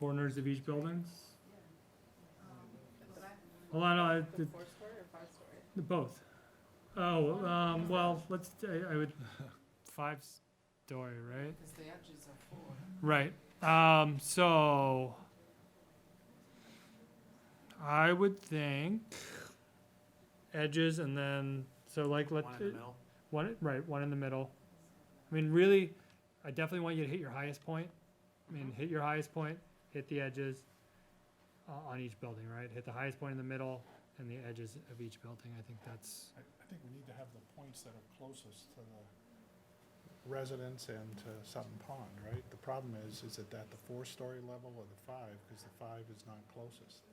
corners of each buildings? Well, I know, I- The four story or five story? uh, both. Oh, um, well, let's, I, I would, five story, right? Because the edges are four. Right. Um, so I would think edges and then so like let One in the middle. one right one in the middle. I mean, really, I definitely want you to hit your highest point. I mean, hit your highest point, hit the edges uh, on each building, right? Hit the highest point in the middle and the edges of each building. I think that's I, I think we need to have the points that are closest to the residents and to Sutton Pond, right? The problem is, is it at the four-story level or the five, because the five is not closest.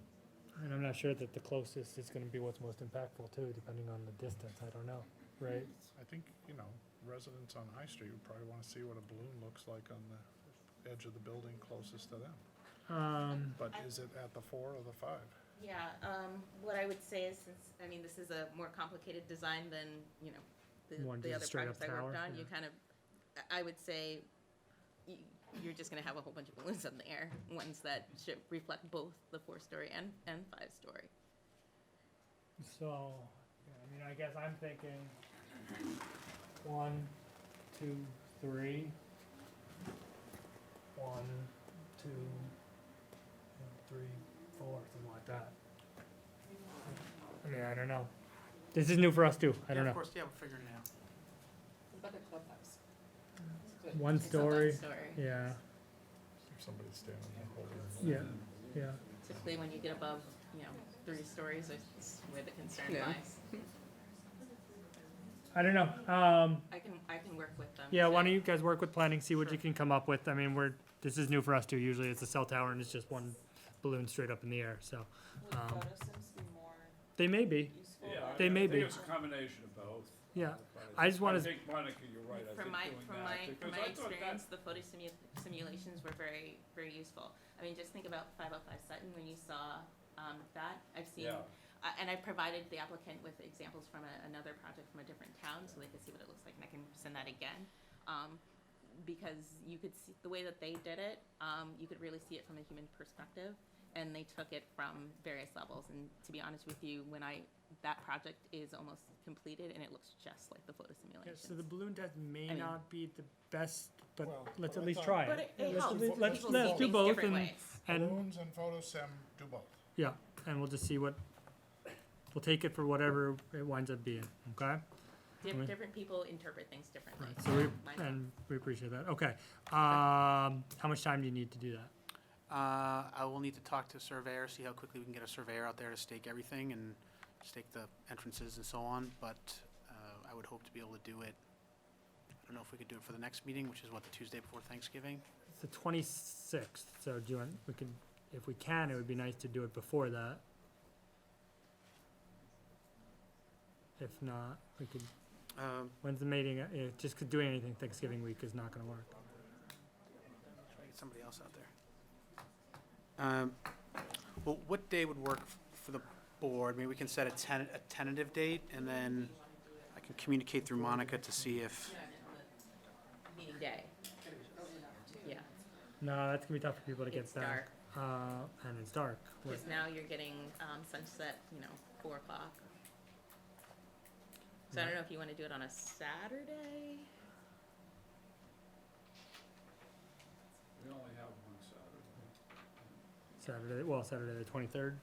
and I'm not sure that the closest is going to be what's most impactful too, depending on the distance. I don't know, right? I think, you know, residents on High Street would probably wanna see what a balloon looks like on the edge of the building closest to them. Um, But is it at the four or the five? Yeah, um, what I would say is since, I mean, this is a more complicated design than, you know, One the, just the other straight up projects I worked tower, on, yeah. you kind of, I- I would say y- you're just gonna have a whole bunch of balloons in the air, ones that should reflect both the four-story and, and five-story. So, yeah, I mean, I guess I'm thinking one, two, three. One, two, and three, four, something like that. I mean, I don't know. This is new for us too. I Yeah, don't Of know. course, yeah, we'll figure it out. What about the clubhouse? One It's a story. five-story. Yeah, If somebody's standing there holding. yeah, yeah. Typically, when you get above, you know, three stories is where the concern Yeah. lies. I don't know. Um, I can, I can work with them. yeah, to- why don't you guys work with planning, see what you Sure. can come up with. I mean, we're, this is new for us too. Usually it's a cell tower and it's just one balloon straight up in the air, so. Would Um, photo sims be more They may be, useful? Yeah, I- They may be. I think it's a combination of both. Yeah, but I just wanna- I think Monica, you're right, From I think my, doing from that, my, from because my I thought that- experience, the photo simu- simulations were very, very useful. I mean, just think about five oh five Sutton, when you saw, um, that, I've seen, Yeah, I- and I provided the applicant with examples from a, another project from a different town, so they could see what it looks like, and I can send that again. Um, because you could see, the way that they did it, um, you could really see it from a human perspective, and they took it from various levels, and to be honest with you, when I, that project is almost completed, and it looks just like the photo Yeah, simulations. so the balloon test may I mean- not be the best, but Well, let's but at I least thought- try But it. it, it Let's helps. do- People let's- see let's do things both different and- ways. And, Balloons and photo sim do both. yeah, and we'll just see what, we'll take it for whatever it winds up being, okay? Dif- mean- different people interpret things differently. Right, so Mine- we, and we appreciate that, okay. Um, how much time do you need to do that? Uh, I will need to talk to a surveyor, see how quickly we can get a surveyor out there to stake everything and stake the entrances and so on, but, uh, I would hope to be able to do it. I don't know if we could do it for the next meeting, which is what, the Tuesday before Thanksgiving? It's the twenty-sixth, so do you want, we can, if we can, it would be nice to do it before that. If not, we could, Um, when's the meeting, uh, yeah, just 'cause doing anything Thanksgiving week is not gonna work. Try to get somebody else out there. Um, Well, what day would work f- for the board? Maybe we can set a ten, a tentative date, and then I can communicate through Monica to see if, Meeting day. Yeah, No, that's gonna be tough for people to get it's back. dark, Uh, and it's dark. What- because now you're getting um, sunset, you know, four o'clock. So I don't know if you want to do it on a Saturday? we only have one Saturday. Saturday, well, Saturday the twenty-third.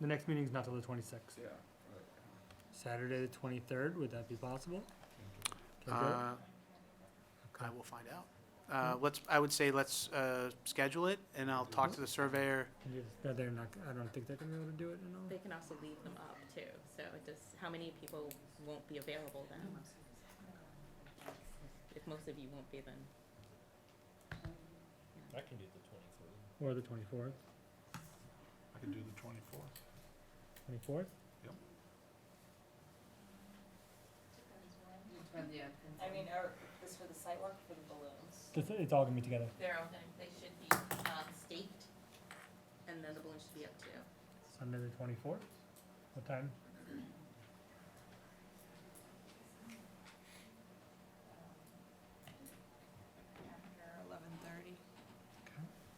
The next meeting's not till the twenty-sixth. Yeah, right. Saturday the twenty-third, would that be possible? Can we do it? uh, I will find out. Uh, Let's, I would say let's uh, schedule it, and I'll talk to the surveyor. Can you- no, They're not, I don't think they're gonna be able to do it in all. They can also leave them up too, so it just, how many people won't be available then? If most of you won't be then, I can do the twenty-third. Or the twenty-fourth, I could do the twenty-fourth. twenty-fourth? I mean, are, this for the sidewalk, for the balloons? It's, it's all gonna be together. they're all, they should be um, staked, and then the balloon should be up too. Sunday the twenty-fourth? What time?